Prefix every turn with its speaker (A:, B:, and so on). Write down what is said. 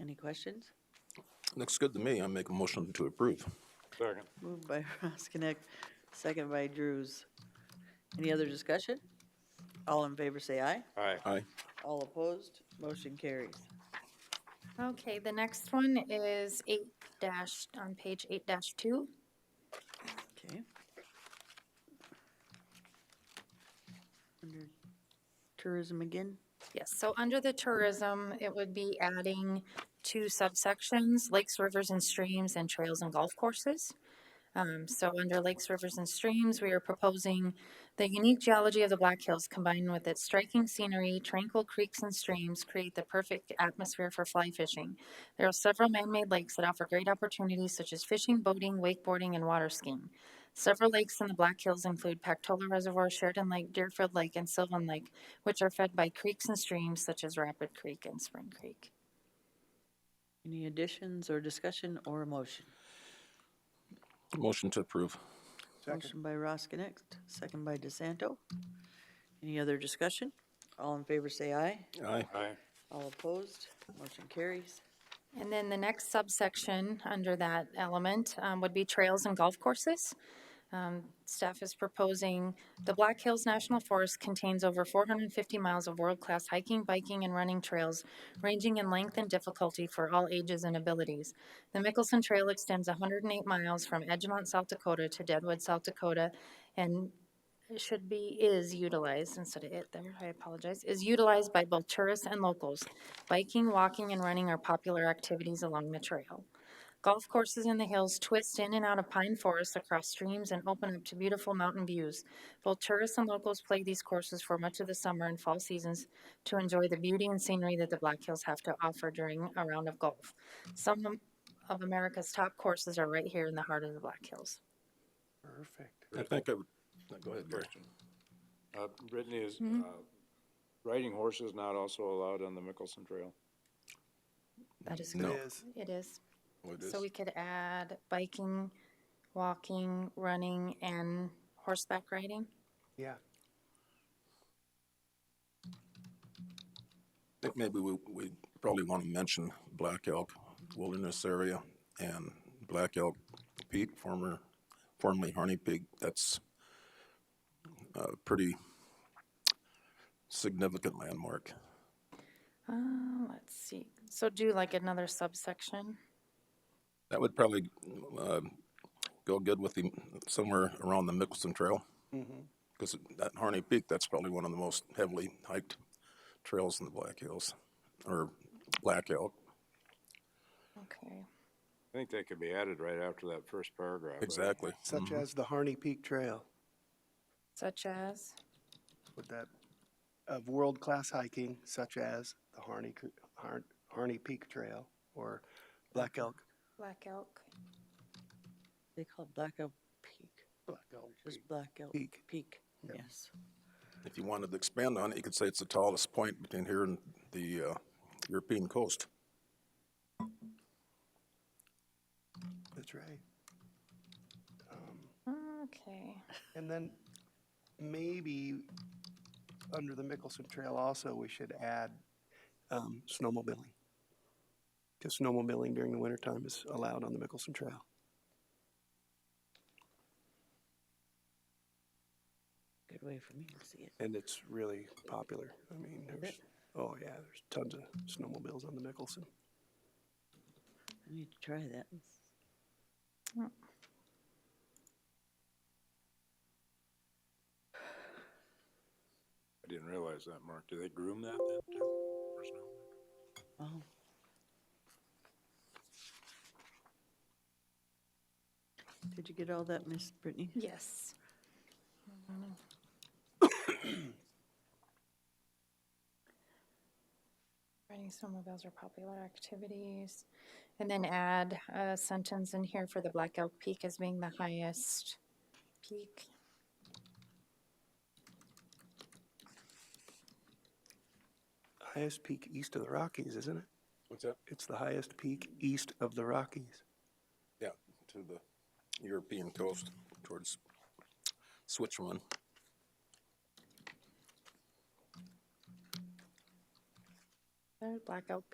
A: Any questions?
B: Looks good to me. I make a motion to approve.
C: Second.
A: Moved by Roskinek, second by Drews. Any other discussion? All in favor say aye.
C: Aye.
B: Aye.
A: All opposed, motion carries.
D: Okay, the next one is eight dash, on page eight dash two.
A: Okay. Under tourism again?
D: Yes, so under the tourism, it would be adding two subsections, lakes, rivers, and streams, and trails and golf courses. Um, so under lakes, rivers, and streams, we are proposing the unique geology of the Black Hills combined with its striking scenery, tranquil creeks and streams create the perfect atmosphere for fly fishing. There are several man-made lakes that offer great opportunities such as fishing, boating, wakeboarding, and water skiing. Several lakes in the Black Hills include Pactola Reservoir, Sheridan Lake, Deerfield Lake, and Sylvan Lake, which are fed by creeks and streams such as Rapid Creek and Spring Creek.
A: Any additions or discussion or a motion?
B: Motion to approve.
A: Motion by Roskinek, second by DeSanto. Any other discussion? All in favor say aye.
B: Aye.
C: Aye.
A: All opposed, motion carries.
D: And then the next subsection under that element um, would be trails and golf courses. Um, Staff is proposing, the Black Hills National Forest contains over 450 miles of world-class hiking, biking, and running trails, ranging in length and difficulty for all ages and abilities. The Mickelson Trail extends 108 miles from Edgemont, South Dakota to Deadwood, South Dakota, and it should be is utilized instead of it there, I apologize, is utilized by both tourists and locals. Biking, walking, and running are popular activities along the trail. Golf courses in the hills twist in and out of pine forests across streams and open up to beautiful mountain views. Both tourists and locals play these courses for much of the summer and fall seasons to enjoy the beauty and scenery that the Black Hills have to offer during a round of golf. Some of America's top courses are right here in the heart of the Black Hills.
B: I think I would, no, go ahead, Gary.
C: Uh, Brittany, is, uh, riding horses not also allowed on the Mickelson Trail?
D: That is
B: No.
D: correct. It is.
B: Well, it is.
D: So we could add biking, walking, running, and horseback riding?
E: Yeah,
B: I think maybe we, we probably want to mention Black Elk Wilderness Area and Black Elk Peak, former, formerly Harney Peak. That's a pretty significant landmark.
D: Uh, let's see. So do like another subsection?
B: That would probably, uh, go good with the, somewhere around the Mickelson Trail.
E: Mm-hmm.
B: Because at Harney Peak, that's probably one of the most heavily hiked trails in the Black Hills, or Black Elk.
D: Okay.
C: I think that could be added right after that first paragraph. right?
B: Exactly. Mm-hmm.
E: such as the Harney Peak Trail
D: Such as,
E: with that, of world-class hiking such as the Harney, Cr- Har- Harney Peak Trail or Black Elk.
D: Black Elk?
A: They call it Black Elk Peak,
E: Black Elk
A: just Black Elk
E: Peak.
A: Peak,
E: Yep.
A: yes.
B: If you wanted to expand on it, you could say it's the tallest point between here and the uh, European coast.
E: That's right. Um,
D: Okay.
E: And then maybe under the Mickelson Trail also, we should add um, snowmobiling. Because snowmobiling during the wintertime is allowed on the Mickelson Trail.
A: Good way for me to see it.
E: And it's really popular. I mean, there's, oh yeah, there's tons of snowmobiles on the Mickelson.
A: I need to try that.
C: I didn't realize that, Mark. Do they groom that then? too, for snow?
A: Oh, Did you get all that, Miss Brittany?
D: Yes. Riding snowmobiles are popular activities. And then add a sentence in here for the Black Elk Peak as being the highest peak.
E: Highest peak east of the Rockies, isn't it?
B: What's that?
E: It's the highest peak east of the Rockies.
B: Yeah, to the European coast towards Switzerland.
D: There, Black Elk